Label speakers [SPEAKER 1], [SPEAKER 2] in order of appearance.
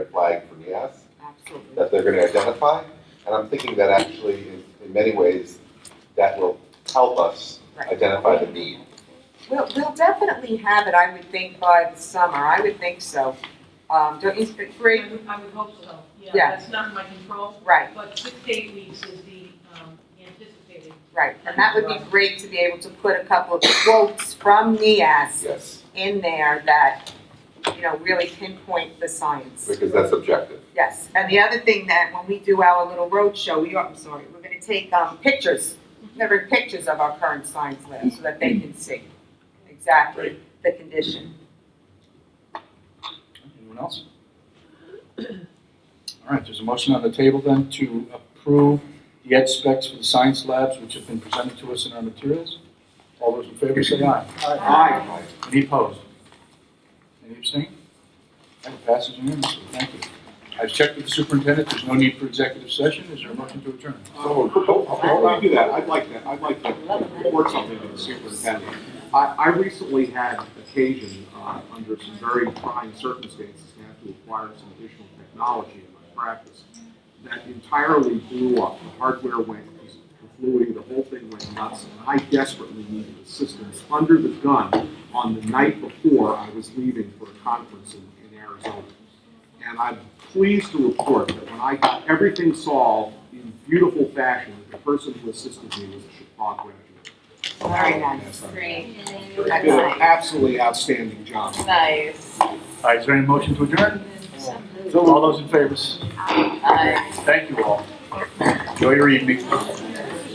[SPEAKER 1] red flag for gas
[SPEAKER 2] Absolutely.
[SPEAKER 1] that they're going to identify. And I'm thinking that actually, in, in many ways, that will help us
[SPEAKER 2] Right.
[SPEAKER 1] identify the need.
[SPEAKER 2] We'll, we'll definitely have it, I would think, by the summer. I would think so. Um, don't you, think,
[SPEAKER 3] I
[SPEAKER 2] Bree?
[SPEAKER 3] would, I would hope so, yeah,
[SPEAKER 2] Yeah.
[SPEAKER 3] that's not in my control,
[SPEAKER 2] Right,
[SPEAKER 3] but six to eight weeks is the, um, anticipated.
[SPEAKER 2] right. And that would be great to be able to put a couple of quotes from NIAS
[SPEAKER 1] Yes,
[SPEAKER 2] in there that, you know, really pinpoint the science.
[SPEAKER 1] because that's objective.
[SPEAKER 2] Yes, and the other thing that when we do our little road show, we are, I'm sorry, we're gonna take um pictures, never pictures of our current science lab so that they can see exactly the condition.
[SPEAKER 4] Anyone else? All right, there's a motion on the table then to approve the ed specs for the science labs, which have been presented to us in our materials. All those in favor say aye.
[SPEAKER 1] Aye.
[SPEAKER 4] Any opposed? Any abstain? That passes unanimously, thank you. I've checked with the superintendent, there's no need for executive session, is there a motion to adjourn?
[SPEAKER 5] So, before we do that, I'd like to, I'd like to report something to the superintendent. I, I recently had occasion, uh, under some very trying circumstances, to have to acquire some additional technology in my practice that entirely blew up. The hardware went completely, the whole thing went nuts, and I desperately needed assistance under the gun on the night before I was leaving for a conference in, in Arizona. And I'm pleased to report that when I got everything solved in beautiful fashion, the person who assisted me was a Chappaqua
[SPEAKER 2] Very
[SPEAKER 5] graduate.
[SPEAKER 2] nice.
[SPEAKER 6] Great.
[SPEAKER 5] Did an absolutely outstanding job.
[SPEAKER 6] Nice.
[SPEAKER 4] All right, is there any motion to adjourn? All those in favor,
[SPEAKER 6] Aye.
[SPEAKER 4] Uh, thank you all. Enjoy your evening.